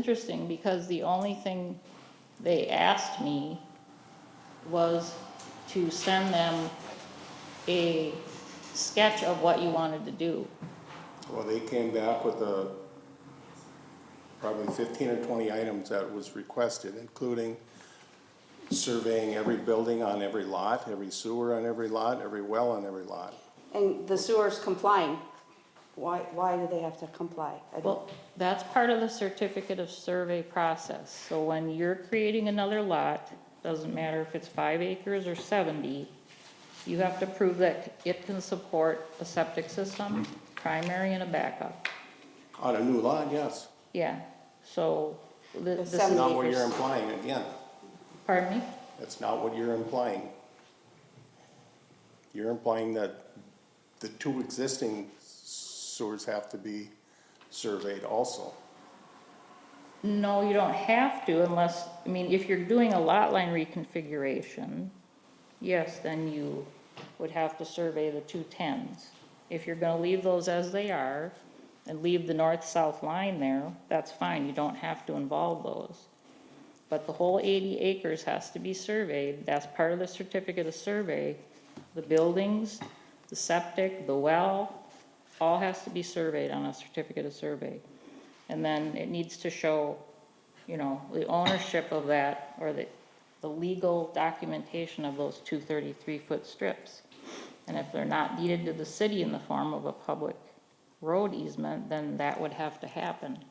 Interesting, because the only thing they asked me was to send them a sketch of what you wanted to do. Well, they came back with a, probably fifteen or twenty items that was requested, including surveying every building on every lot, every sewer on every lot, every well on every lot. And the sewer's complying. Why, why do they have to comply? I don't- Well, that's part of the certificate of survey process. So when you're creating another lot, doesn't matter if it's five acres or seventy, you have to prove that it can support a septic system, primary and a backup. On a new lot, yes, Yeah, so th- The this seven- is, not what you're implying, again, pardon me? that's not what you're implying. You're implying that the two existing sewers have to be surveyed also. No, you don't have to unless, I mean, if you're doing a lot line reconfiguration, yes, then you would have to survey the two tens. If you're gonna leave those as they are and leave the north-south line there, that's fine, you don't have to involve those. But the whole eighty acres has to be surveyed, that's part of the certificate of survey. The buildings, the septic, the well, all has to be surveyed on a certificate of survey. And then it needs to show, you know, the ownership of that, or the, the legal documentation of those two thirty-three foot strips. And if they're not deeded to the city in the form of a public road easement, then that would have to happen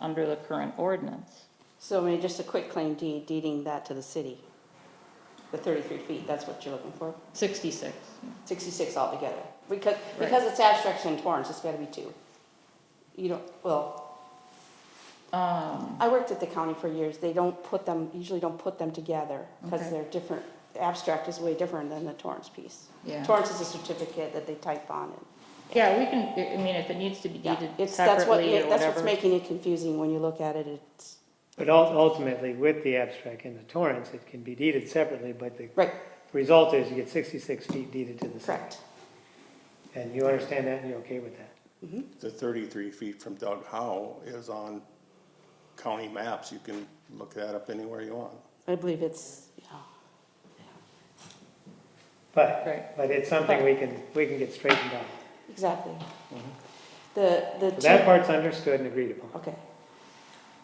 under the current ordinance. So, I mean, just a quick claim deed, deeding that to the city. The thirty-three feet, that's what you're looking for? Sixty-six, Sixty-six altogether. Because, because it's abstract in Torrance, it's gotta be two. You don't, well, um, I worked at the county for years. They don't put them, usually don't put them together because Okay. they're different. The Abstract is way different than the Torrance piece. Yeah. Torrance is a certificate that they type on and yeah, we can, I I mean, if it needs to be Yeah, deeded it's, that's what, separately or that's what's whatever. making it confusing when you look at it, it's, But ul- ultimately, with the abstract and the torrents, it can be deeded separately, but the right, result is you get sixty-six feet deeded to the city. correct. And you understand that and you're okay with that? The thirty-three feet from Doug Howe is on county maps, you can look that up anywhere you want. I believe it's, Right. But, but it's something we can, we can get straightened out. exactly. Mm-hmm. The, the. So That two- part's understood and agreed upon. Okay.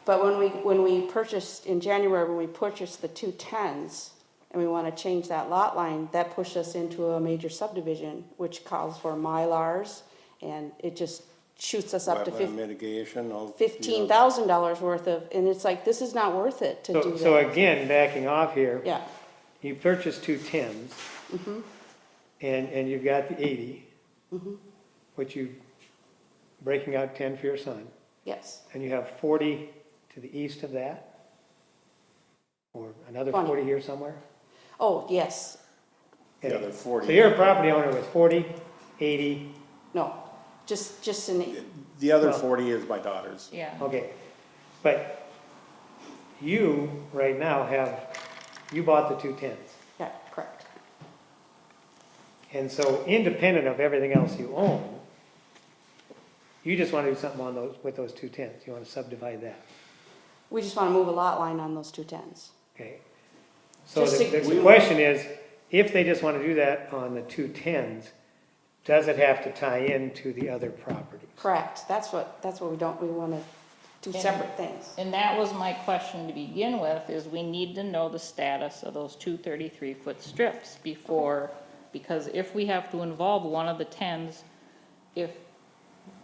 But when we, when we purchased, in January, when we purchased the two tens, and we wanna change that lot line, that pushed us into a major subdivision, which calls for Mylars, and it just shoots us up to Wetland fif- mitigation, all. fifteen thousand dollars worth of, and it's like, this is not worth it to do So, so that. again, backing off here, Yeah, Mm-hmm. you purchased two tens. And, and you've got the eighty. Which you, breaking out ten for your son. yes, And you have 40 to the east of that? Or another Twenty. 40 here somewhere? oh, yes, you know, The Anyway, other So forty, you're a property owner with 40, 80, no, just, just in, the other Well- forty is my daughter's. Yeah, okay. But you, right now, have, you bought the two tens. yeah, correct. And so independent of everything else you own, you just want to do something on those, with those two tens. You want to subdivide that, We just wanna move a lot line on those two tens. okay? So Just the to- the question is, if they just want to do that on the two tens, does it have to tie into the other property? Correct, that's what, that's what we don't, we wanna do And- separate things. and that was my question to begin with, is we need to know the status of those two thirty-three foot strips before, because if we have to involve one of the tens, if,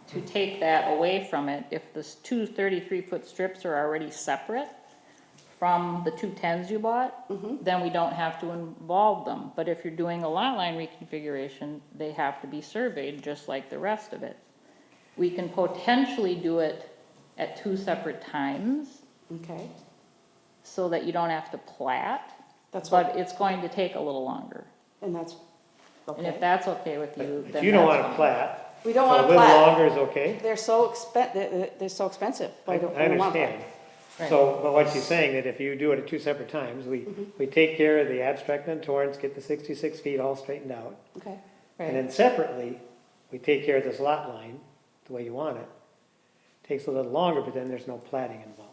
to take that away from it, if this two thirty-three foot strips are already separate from the two tens you bought, then we don't have to involve them. But if you're doing a lot line reconfiguration, they have to be surveyed just like the rest of it. We can potentially do it at two separate times Okay, so that you don't have to plat, that's but what, it's going to take a little longer. and that's, And if okay. that's okay with you, But then you don't want to that's fine. plat. We don't so wanna A little plat, longer is okay? they're so expen, they're, they're so expensive. I Why I don't- we don't want that. Mm-hmm. understand. So, but what she's saying, that if you do it at two separate times, we, we take care of the abstract and torrents, get the sixty-six feet all straightened out. Okay, right, And then separately, we take care of this lot line, the way you want it. Takes a little longer, but then there's no platting involved.